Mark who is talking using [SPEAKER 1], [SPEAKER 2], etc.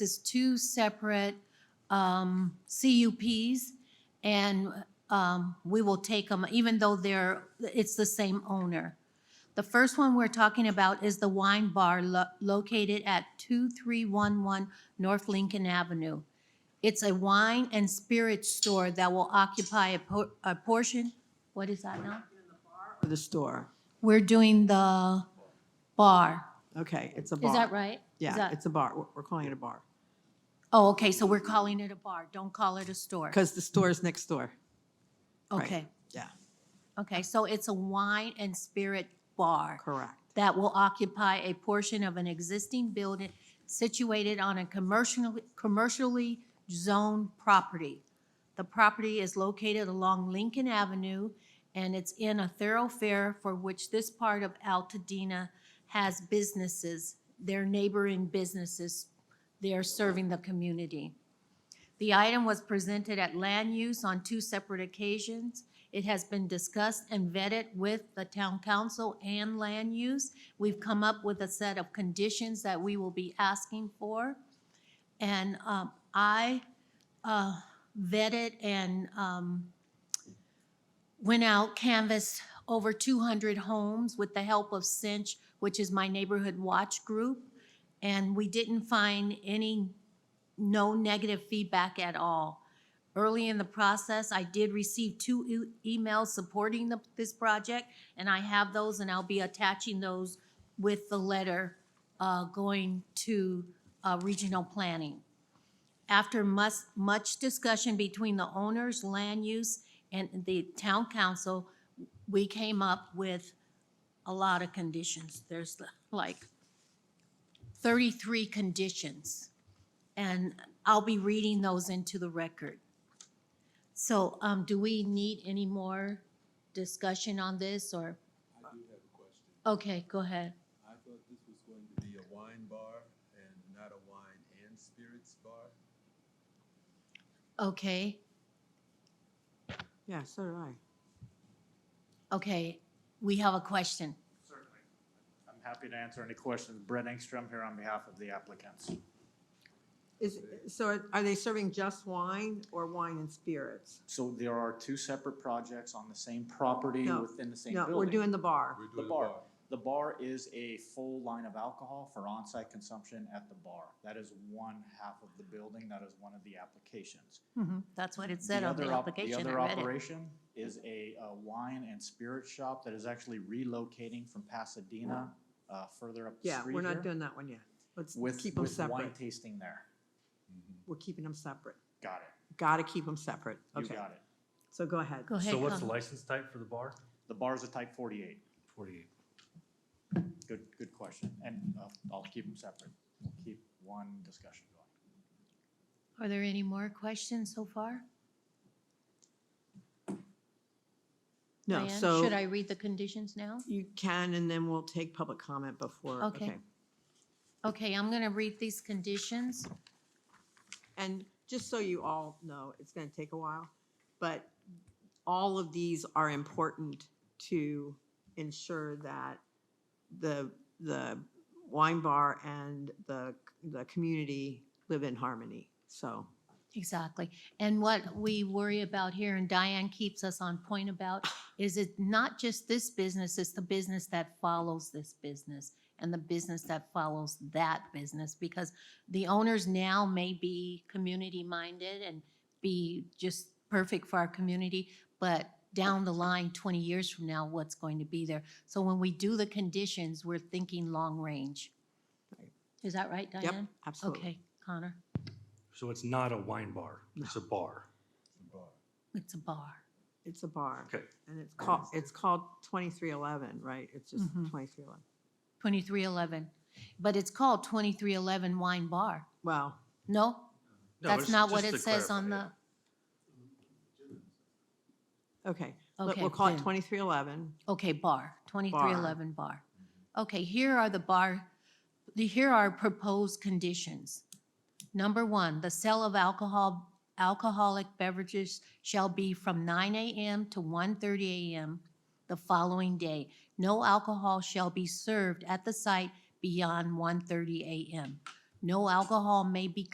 [SPEAKER 1] this two separate um, CUPs, and um, we will take them, even though they're, it's the same owner. The first one we're talking about is the wine bar lo- located at 2311 North Lincoln Avenue. It's a wine and spirit store that will occupy a por- a portion, what is that now?
[SPEAKER 2] or the store?
[SPEAKER 1] We're doing the bar.
[SPEAKER 2] Okay, it's a bar.
[SPEAKER 1] Is that right? Is
[SPEAKER 2] Yeah,
[SPEAKER 1] that-
[SPEAKER 2] it's a bar. We're- We're calling it a bar.
[SPEAKER 1] Oh, okay, so we're calling it a bar. Don't call it a store.
[SPEAKER 2] Because the store is next door. right.
[SPEAKER 1] Okay,
[SPEAKER 2] Yeah,
[SPEAKER 1] okay, so it's a wine and spirit bar
[SPEAKER 2] correct.
[SPEAKER 1] that will occupy a portion of an existing building situated on a commercially, commercially zoned property. The property is located along Lincoln Avenue, and it's in a thoroughfare for which this part of Altadena has businesses, their neighboring businesses, they are serving the community. The item was presented at land use on two separate occasions. It has been discussed and vetted with the town council and land use. We've come up with a set of conditions that we will be asking for. And um, I uh, vetted and um, went out, canvassed over 200 homes with the help of Cinch, which is my neighborhood watch group. And we didn't find any no negative feedback at all. Early in the process, I did receive two e- emails supporting the, this project, and I have those, and I'll be attaching those with the letter uh, going to uh, regional planning. After much, much discussion between the owners, land use, and the town council, we came up with a lot of conditions. There's like thirty-three conditions and I'll be reading those into the record. So, um, do we need any more discussion on this, or?
[SPEAKER 3] I do have a question.
[SPEAKER 1] Okay, go ahead.
[SPEAKER 3] I thought this was going to be a wine bar and not a wine and spirits bar.
[SPEAKER 1] Okay,
[SPEAKER 2] Yeah, so do I.
[SPEAKER 1] okay, we have a question.
[SPEAKER 4] Certainly. I'm happy to answer any questions. Brett Engstrom here on behalf of the applicants.
[SPEAKER 2] Is, so are- are they serving just wine or wine and spirits?
[SPEAKER 4] So there are two separate projects on the same property
[SPEAKER 2] No,
[SPEAKER 4] within the same
[SPEAKER 2] No,
[SPEAKER 4] building.
[SPEAKER 2] we're doing the bar.
[SPEAKER 3] We're
[SPEAKER 4] The
[SPEAKER 3] doing a
[SPEAKER 4] bar.
[SPEAKER 3] bar.
[SPEAKER 4] The bar is a full line of alcohol for on-site consumption at the bar. That is one half of the building. That is one of the applications.
[SPEAKER 1] That's what it said on the
[SPEAKER 4] other op-
[SPEAKER 1] application, I
[SPEAKER 4] other
[SPEAKER 1] read it.
[SPEAKER 4] operation is a uh, wine and spirit shop that is actually relocating from Pasadena, uh, further up the
[SPEAKER 2] Yeah,
[SPEAKER 4] street
[SPEAKER 2] we're not
[SPEAKER 4] here,
[SPEAKER 2] doing that one yet. Let's
[SPEAKER 4] With,
[SPEAKER 2] keep them
[SPEAKER 4] with wine
[SPEAKER 2] separate.
[SPEAKER 4] tasting there.
[SPEAKER 2] We're keeping them separate.
[SPEAKER 4] Got it.
[SPEAKER 2] Got to keep them separate.
[SPEAKER 4] You
[SPEAKER 2] Okay,
[SPEAKER 4] got it.
[SPEAKER 2] so go ahead.
[SPEAKER 1] Go ahead.
[SPEAKER 5] So what's the
[SPEAKER 1] Colin.
[SPEAKER 5] license type for the bar?
[SPEAKER 4] The bar's a type forty-eight.
[SPEAKER 5] Forty-eight.
[SPEAKER 4] Good, good question, and uh, I'll keep them separate. We'll keep one discussion going.
[SPEAKER 1] Are there any more questions so far?
[SPEAKER 2] No,
[SPEAKER 1] Diane,
[SPEAKER 2] so
[SPEAKER 1] Should I read the conditions now?
[SPEAKER 2] you can, and then we'll take public comment before.
[SPEAKER 1] Okay. Okay, I'm gonna read these conditions.
[SPEAKER 2] And just so you all know, it's going to take a while, but all of these are important to ensure that the, the wine bar and the, the community live in harmony. So,
[SPEAKER 1] Exactly. And what we worry about here, and Diane keeps us on point about, is it not just this business, it's the business that follows this business and the business that follows that business, because the owners now may be community-minded and be just perfect for our community, but down the line, 20 years from now, what's going to be there? So when we do the conditions, we're thinking long range.
[SPEAKER 2] Right.
[SPEAKER 1] Is that right,
[SPEAKER 2] yep,
[SPEAKER 1] Diane?
[SPEAKER 2] absolutely.
[SPEAKER 1] Okay, Connor,
[SPEAKER 5] So it's not a wine bar, it's a bar.
[SPEAKER 1] it's
[SPEAKER 3] It's a bar.
[SPEAKER 1] a bar.
[SPEAKER 2] It's a bar.
[SPEAKER 5] Okay.
[SPEAKER 2] And it's called, it's called 2311, right? It's just
[SPEAKER 1] Mhm.
[SPEAKER 2] 2311.
[SPEAKER 1] 2311, but it's called 2311 Wine Bar.
[SPEAKER 2] Wow.
[SPEAKER 1] No?
[SPEAKER 5] No,
[SPEAKER 1] That's
[SPEAKER 5] it's
[SPEAKER 1] not what
[SPEAKER 5] just
[SPEAKER 1] it
[SPEAKER 5] to
[SPEAKER 1] says on
[SPEAKER 5] clarify
[SPEAKER 1] the,
[SPEAKER 5] it.
[SPEAKER 2] Okay. Let-
[SPEAKER 1] okay.
[SPEAKER 2] We'll call it
[SPEAKER 1] then.
[SPEAKER 2] 2311.
[SPEAKER 1] Okay, bar, 2311 bar. Okay, here are the bar, the- here are proposed conditions. Number one, the sale of alcohol, alcoholic beverages shall be from 9 AM to 1:30 AM the following day. No alcohol shall be served at the site beyond 1:30 AM. No alcohol may be